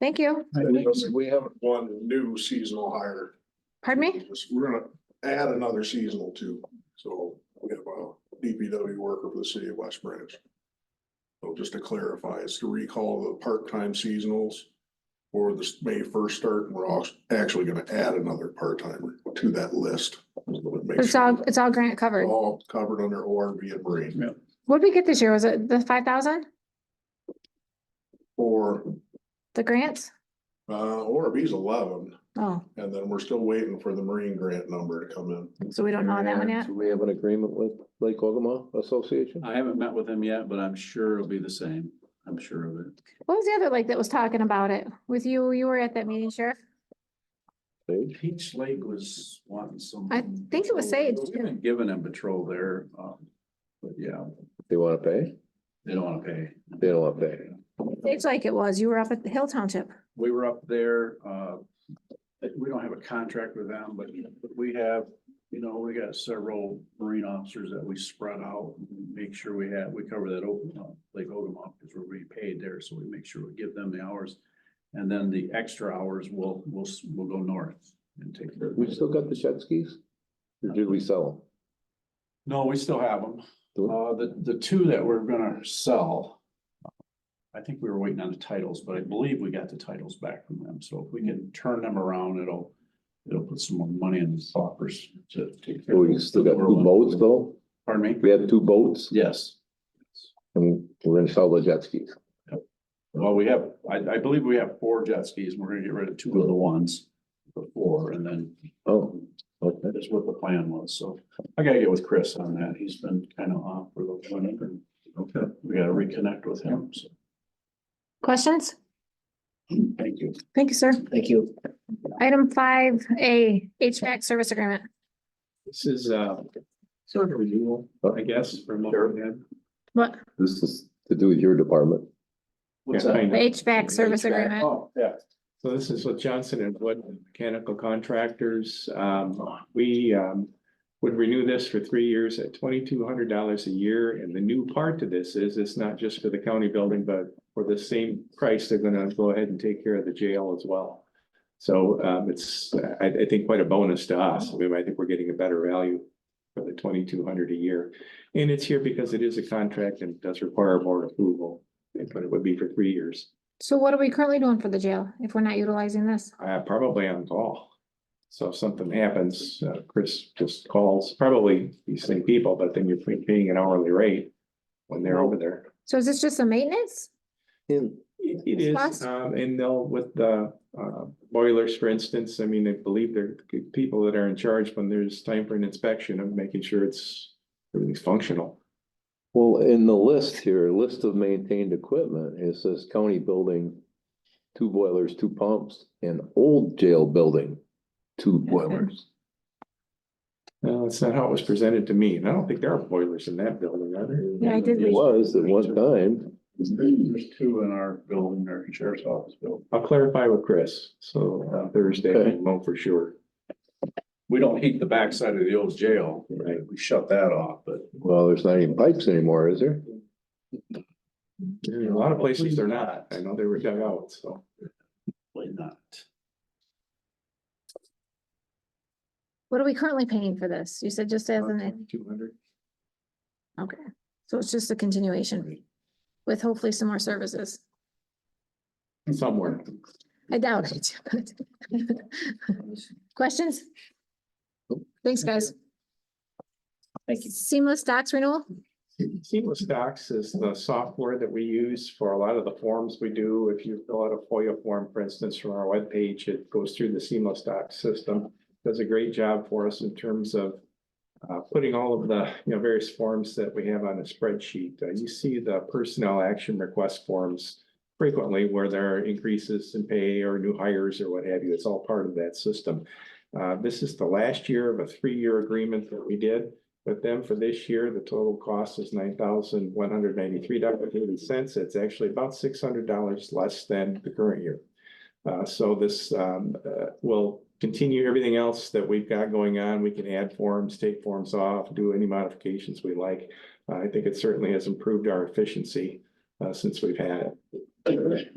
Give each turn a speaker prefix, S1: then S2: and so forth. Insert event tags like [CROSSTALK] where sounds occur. S1: Thank you.
S2: Because We haven't one new seasonal hire.
S1: Pardon me?
S2: We're gonna add another seasonal too, so we have a DPW worker for the city of West Branch. So just to clarify, it's to recall the part-time seasonals for the May first start, and we're also actually gonna add another part-timer to that list.
S1: It's all, it's all grant covered.
S2: All covered under ORV and Marine
S1: What did we get this year? Was it the five thousand,
S2: or,
S1: the grants?
S2: uh, ORV's eleven,
S1: Oh,
S2: and then we're still waiting for the Marine grant number to come in.
S1: so we don't know on that one yet?
S3: Do we have an agreement with Lake Ogama Association?
S4: I haven't met with him yet, but I'm sure it'll be the same. I'm sure of it.
S1: What was the other like that was talking about it with you? You were at that meeting, Sheriff?
S3: Sage?
S4: Peach Lake was wanting some.
S1: I think it was Sage,
S4: We've been giving them patrol there, um, but yeah,
S3: They wanna pay?
S4: they don't wanna pay.
S3: They don't wanna pay.
S1: It's like it was. You were up at the Hill Township.
S4: We were up there, uh, we don't have a contract with them, but but we have, you know, we got several marine officers that we spread out. and Make sure we have, we cover that open, uh, Lake Ogama, because we're being paid there, so we make sure we give them the hours. And then the extra hours will, will, will go north and take care of.
S3: We still got the jet skis? Or did we sell them?
S4: No, we still have them.
S3: Do we?
S4: Uh, the, the two that we're gonna sell. I think we were waiting on the titles, but I believe we got the titles back from them, so if we can turn them around, it'll. It'll put some more money in the coffers to take. care
S3: Oh,
S4: of
S3: We still got
S4: the
S3: two boats though?
S4: Pardon me?
S3: We had two boats
S4: Yes,
S3: and we're gonna sell the jet skis.
S4: well, we have, I, I believe we have four jet skis, and we're gonna get rid of two of the ones. Before, and then
S3: Oh, okay.
S4: that's what the plan was, so I gotta get with Chris on that, he's been kind of off for the clinic, and. Okay. We gotta reconnect with him, so,
S1: Questions?
S4: thank you.
S1: Thank you, sir.
S5: Thank you.
S1: Item five A, HVAC service agreement.
S6: This is uh sort of renewal, I guess, from what we had.
S1: What?
S3: This is to do with your department.
S4: What's
S6: Yeah,
S4: that?
S6: kind
S1: The
S6: of.
S1: HVAC service
S6: HVAC.
S1: agreement.
S4: Oh, yeah.
S6: So this is with Johnson and Wood Mechanical Contractors. Um, we um would renew this for three years at twenty-two hundred dollars a year. And the new part to this is it's not just for the county building, but for the same price, they're gonna go ahead and take care of the jail as well. So um it's, I I think quite a bonus to us. I mean, I think we're getting a better value for the twenty-two hundred dollars a year. And it's here because it is a contract and does require board approval, but it would be for three years.
S1: So what are we currently doing for the jail if we're not utilizing this?
S6: Uh, probably on call. So if something happens, uh, Chris just calls, probably these same people, but then you're paying an hourly rate when they're over there.
S1: So is this just a maintenance?
S3: In,
S6: It it
S1: Plus-
S6: is, um, and they'll with the, uh, boilers, for instance, I mean, I believe they're good people that are in charge when there's time for an inspection of making sure it's, everything's functional.
S3: well, in the list here, list of maintained equipment, it says county building, two boilers, two pumps, and old jail building, two boilers.
S6: No, that's not how it was presented to me, and I don't think there are boilers in that building, are there?
S1: Yeah, I did
S3: It was at one time.
S4: There's two in our building, our sheriff's office building.
S6: I'll clarify with Chris, so uh, Thursday, we'll know for sure.
S4: We don't heat the backside of the old jail.
S6: Right.
S4: We shut that off, but.
S3: Well, there's not even pipes anymore, is there?
S6: A lot of places they're not. I know they were dug out, so.
S4: Probably not.
S1: What are we currently paying for this? You said just as an,
S6: Two hundred.
S1: okay, so it's just a continuation with hopefully some more services.
S6: Somewhere.
S1: I doubt it. [LAUGHS] but- Questions? Thanks, guys.
S5: Thank you.
S1: Seamless docs renewal?
S6: Seamless Docs is the software that we use for a lot of the forms we do. If you fill out a FOIA form, for instance, from our webpage, it goes through the Seamless Docs system. Does a great job for us in terms of uh, putting all of the, you know, various forms that we have on a spreadsheet. Uh, You see the personnel action request forms frequently where there are increases in pay or new hires or what have you. It's all part of that system. Uh, This is the last year of a three-year agreement that we did with them for this year. The total cost is nine thousand one hundred ninety-three dollars eighty cents. It's actually about six hundred dollars less than the current year. Uh, so this, um, uh, will continue everything else that we've got going on. We can add forms, take forms off, do any modifications we like. Uh, I think it certainly has improved our efficiency, uh, since we've had it.